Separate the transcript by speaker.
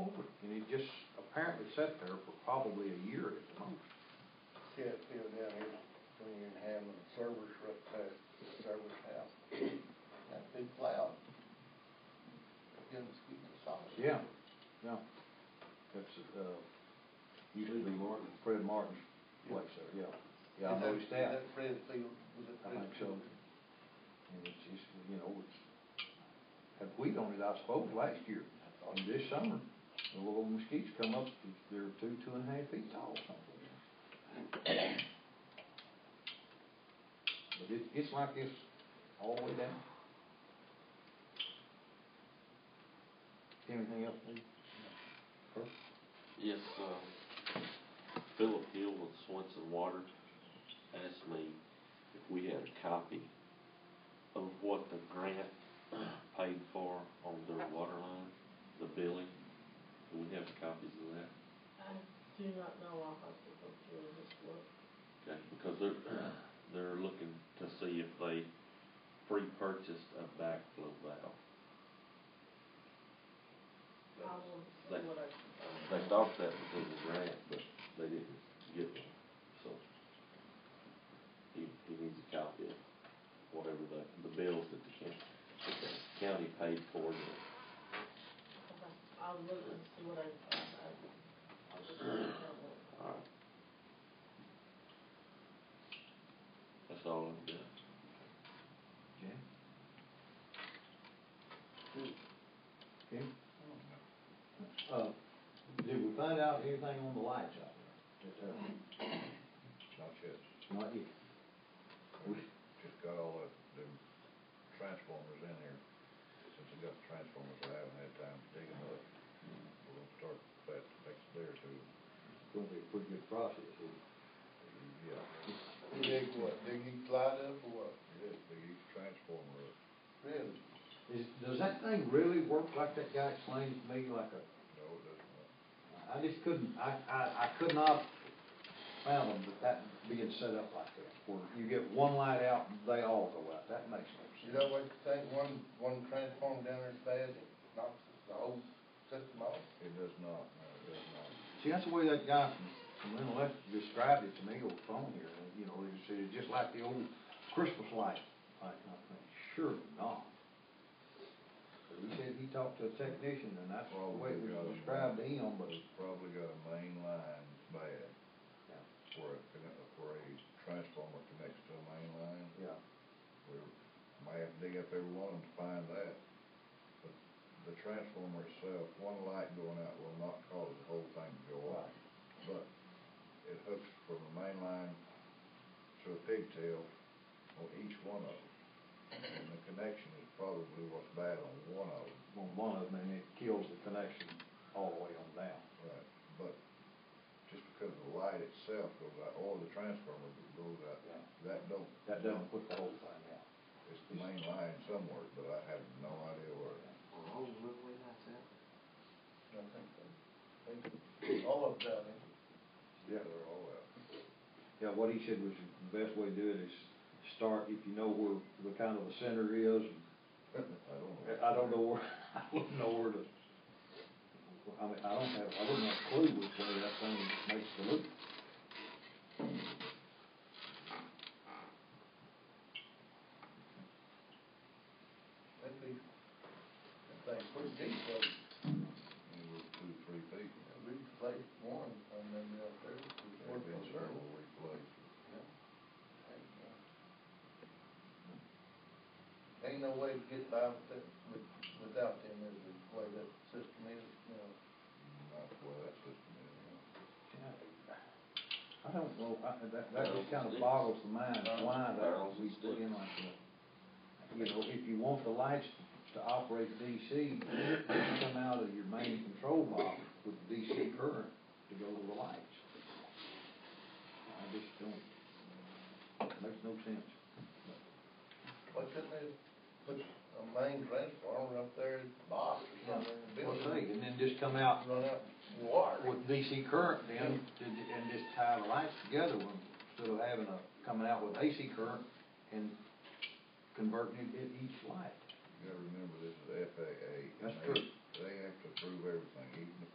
Speaker 1: apparently sat there for probably a year at the most.
Speaker 2: See that field down here, between Hammond and Servers, right past the Servers house? That big cloud. Young mosquitoes saw it.
Speaker 1: Yeah, yeah. That's, uh, used to be Martin, Fred Martin's place there, yeah. Yeah, I
Speaker 2: Is that-
Speaker 1: noticed that.
Speaker 2: Is that Fred Field, was it
Speaker 1: I
Speaker 2: Fred
Speaker 1: think so.
Speaker 2: Field?
Speaker 1: And it's just, you know, it's, had wheat on it, I suppose, last year. And this summer, the little mosquitoes come up, they're two, two and a half feet tall or something. But it, it's like this all the way down. Anything else, Lee? Herb?
Speaker 3: Yes, uh, Philip Hill with Swenson Water asked me if we had a copy of what the grant paid for on their water line, the billing. Do we have copies of that?
Speaker 4: I do not know, I'll have to go through and just look.
Speaker 3: Okay, because they're, they're looking to see if they pre-purchased a backflow valve.
Speaker 4: I will see what I um, can find.
Speaker 3: They thought that was in the grant, but they didn't get one, so. He, he needs a copy of whatever the, the bills that the county, that the county paid for the
Speaker 4: Okay. I'll look and see what I can find. I- I'll just look at it.
Speaker 3: Alright. That's all I've got.
Speaker 1: Jan?
Speaker 2: Who?
Speaker 1: Okay. Uh, did we find out anything on the lights out there?
Speaker 5: Not yet,
Speaker 1: Not yet. We,
Speaker 5: just got all the, the transformers in here, since I got the transformers, I haven't had time to dig them up. We're gonna start that next day or two,
Speaker 1: it's gonna be a pretty good process, isn't
Speaker 5: yeah,
Speaker 2: Dig what, dig each light up or what?
Speaker 5: yeah, dig each transformer up.
Speaker 2: Really?
Speaker 1: it? Is, does that thing really work like that guy explained it to me, like a,
Speaker 5: No, it doesn't, work.
Speaker 1: I just couldn't, I, I, I could not fathom that that being set up like that, where you get one light out, and they all go out, that makes no
Speaker 2: You
Speaker 1: sense.
Speaker 2: know what you think, one, one transformer down there fast, it knocks the whole system off?
Speaker 5: it does not, no, it does not.
Speaker 1: See, that's the way that guy from Lynn Left described it to me over the phone here, and, you know, he said, it's just like the old Christmas light, like, I think, sure not. But He said he talked to a technician, and that's the way it was described to him, but
Speaker 5: It's probably got a main line bad, where a, conne- where a transformer connects to a main line,
Speaker 1: Yeah,
Speaker 5: we might have to dig up every one of them to find that. But the transformer itself, one light going out will not cause the whole thing to go off. But it hooks from the main line to a pigtail on each one of them. And the connection is probably what's bad on one of
Speaker 1: on
Speaker 5: them.
Speaker 1: one of them, and it kills the connection all the way on down.
Speaker 5: Right. But just because the light itself goes out, or the transformer goes out,
Speaker 1: Yeah.
Speaker 5: that don't.
Speaker 1: That doesn't put the whole thing out.
Speaker 5: It's the main line somewhere, but I have no idea where.
Speaker 2: I think so. Think All of that,
Speaker 1: Yeah.
Speaker 5: They're all out.
Speaker 1: Yeah, what he said was the best way to do it is start, if you know where the kind of the center is,
Speaker 5: I don't know.
Speaker 1: I don't know where, I wouldn't know where to. I mean, I don't have, I wouldn't have a clue which way that thing makes the loop.
Speaker 2: that'd be, that thing's pretty deep, but
Speaker 5: Anywhere two, three feet.
Speaker 2: we replaced one, uh, I remember out there. we
Speaker 5: There've
Speaker 2: worked
Speaker 5: been
Speaker 2: on it.
Speaker 5: several we placed.
Speaker 2: Ain't no way to get by with that, with, without them, is the way that system is, you know.
Speaker 5: Not well, that system is.
Speaker 1: I don't know, I, that, that just kind of boggles the mind, why that we put in like that. You know, if you want the lights to operate DC, they come out of your main control box with DC current to go to the lights. I just don't, makes no sense.
Speaker 2: Why couldn't they put a main transformer up there in the box or something? in the
Speaker 1: Well,
Speaker 2: building?
Speaker 1: see, and then just come out
Speaker 2: Run out water.
Speaker 1: with DC current then, to- and just tie the lights together, when- instead of having a, coming out with AC current and converting it at each light.
Speaker 5: You gotta remember, this is FAA. and
Speaker 1: That's
Speaker 5: they-
Speaker 1: true.
Speaker 5: They have to approve everything, even the